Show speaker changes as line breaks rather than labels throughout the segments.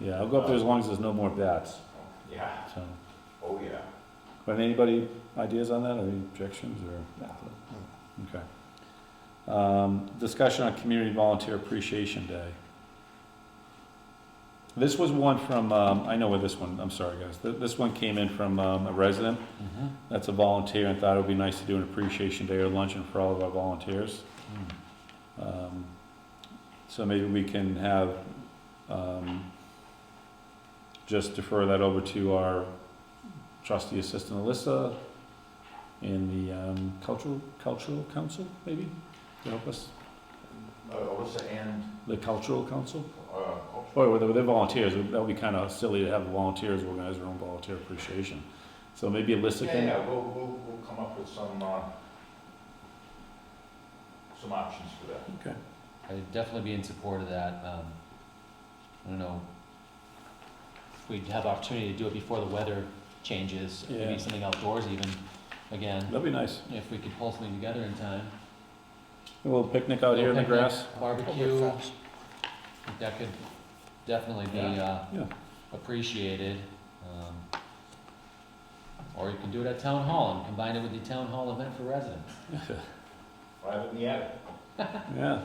Yeah, I'll go up there as long as there's no more bats,
Yeah,
so.
oh, yeah.
But anybody ideas on that, or any objections, or? Okay. Um, discussion on Community Volunteer Appreciation Day. This was one from, um, I know where this one, I'm sorry, guys, Th- this one came in from, um, a resident that's a volunteer and thought it would be nice to do an appreciation day or luncheon for all of our volunteers. Um, So maybe we can have, um, just defer that over to our trustee assistant Alyssa and the, um, cultural, cultural council, maybe, to help us,
Uh, Alyssa and,
the cultural council?
uh,
Boy, well, they're, they're volunteers, that would be kinda silly to have volunteers organize their own volunteer appreciation. So maybe Alyssa
yeah,
can.
yeah, we'll, we'll, we'll come up with some, uh, some options for that.
Okay.
I'd definitely be in support of that, um, I don't know, if we'd have opportunity to do it before the weather changes,
Yeah.
maybe something outdoors even, again,
That'd be nice.
if we could pull something together in time.
A little picnic out here in the
Little
grass.
Barbecue, that could definitely be,
Yeah.
uh,
Yeah.
appreciated, um, or you can do it at town hall and combine it with the town hall event for residents.
Right in the attic.
Yeah.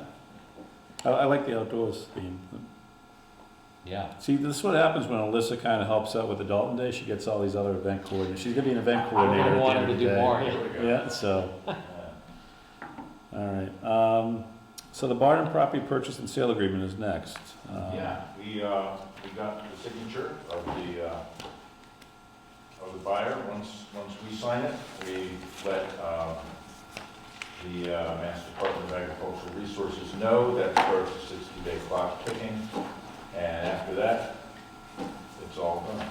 I, I like the outdoors theme.
Yeah,
See, this is what happens when Alyssa kind of helps out with the Dalton Day. She gets all these other event coordinators. She's gonna be an event coordinator. at
I
the
wanted
end
to
of the
do
day.
more.
There we go.
Yeah, so,
Yeah.
all right. Um, so the Barton property purchase and sale agreement is next. Um,
Yeah, we, uh, we got the signature of the, uh, of the buyer. Once, once we sign it, we let, um, the, uh, Mass Department of Agricultural Resources know that starts a sixty-day clock ticking. And after that, it's all done.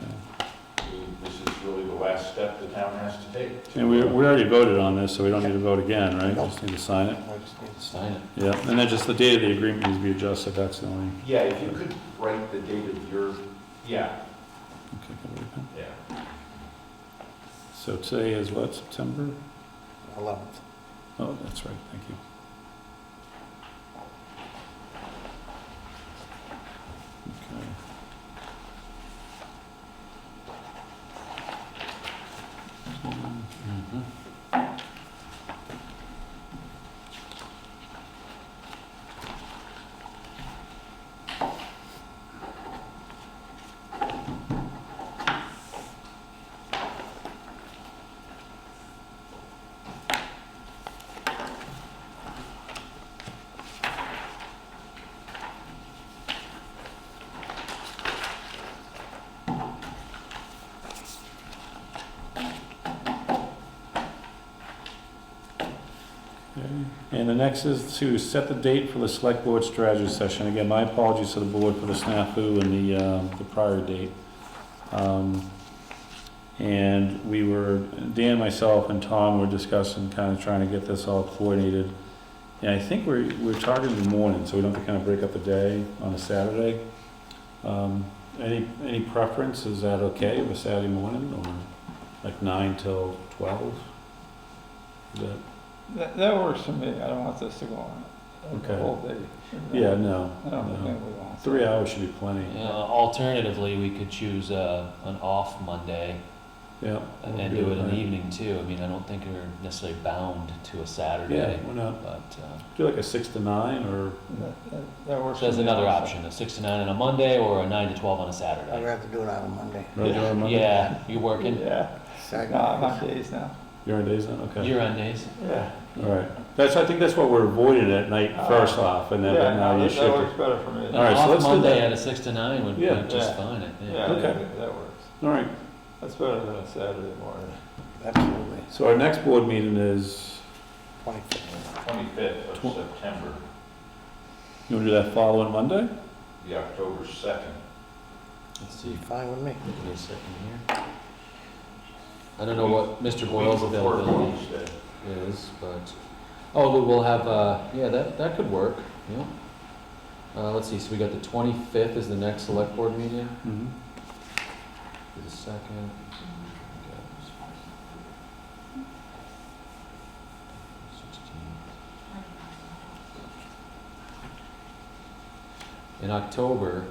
okay.
We- This is really the last step the town has to take.
And we, we already voted on this, so we don't need to vote again, right? Just need to sign it.
sign it.
Yeah, and then just the date of the agreement needs to be adjusted. That's the only.
Yeah, if you could write the date of your, yeah,
Okay, can we-
yeah.
So today is what, September?
Eleventh.
Oh, that's right, thank you. Okay.
Mm-hmm.
And the next is to set the date for the select board strategy session. Again, my apologies to the board for the snafu and the, um, the prior date. Um, And we were, Dan, myself, and Tom were discussing, kind of trying to get this all coordinated. And I think we're, we're targeting the morning, so we don't have to kind of break up the day on a Saturday. Um, Any, any preference? Is that okay, of a Saturday morning, or like nine till twelve? Is that?
That, that works for me, I don't want this to go on the
Okay.
whole day.
Yeah, no.
I don't
no.
think we want.
Three hours should be plenty.
Uh, Alternatively, we could choose uh, an off Monday
Yeah.
and
we'll
and do it in
right.
the evening too. I mean, I don't think we're necessarily bound to a
Yeah,
Saturday,
why not?
but, uh,
Do like a six to nine or,
That, that- that works.
so that's
for me
another
also.
option, a six to nine on a Monday or a nine to twelve on a
I'd
Saturday.
rather do it on a Monday.
Rather do it on Monday?
Yeah, you're working,
Yeah,
Second.
no, I'm on days now,
you're on days then? Okay.
you're on days.
yeah.
All right. That's, I think that's what we're avoiding at night
Uh,
first off and then but
Yeah,
now
no,
you
that- That
shift.
works better for me.
An
All right, so
off
let's do
Monday
that.
at a six to nine would be
Yeah.
just
Yeah.
fine, I think.
Yeah,
Okay.
that- that works,
All right.
that's better than a Saturday morning.
Absolutely.
So our next board meeting is,
Twenty-fifth.
Twenty-fifth of
Tw-
September,
you want to do that following Monday?
the October second.
Let's see,
Fine with me.
give me a second here. I don't know what Mr. Boyle's availability is, but, oh, we will have, uh, yeah, that, that could work, yeah. Uh, let's see, so we got the twenty-fifth is the next select board meeting,
Mm-hmm.
the second. In October,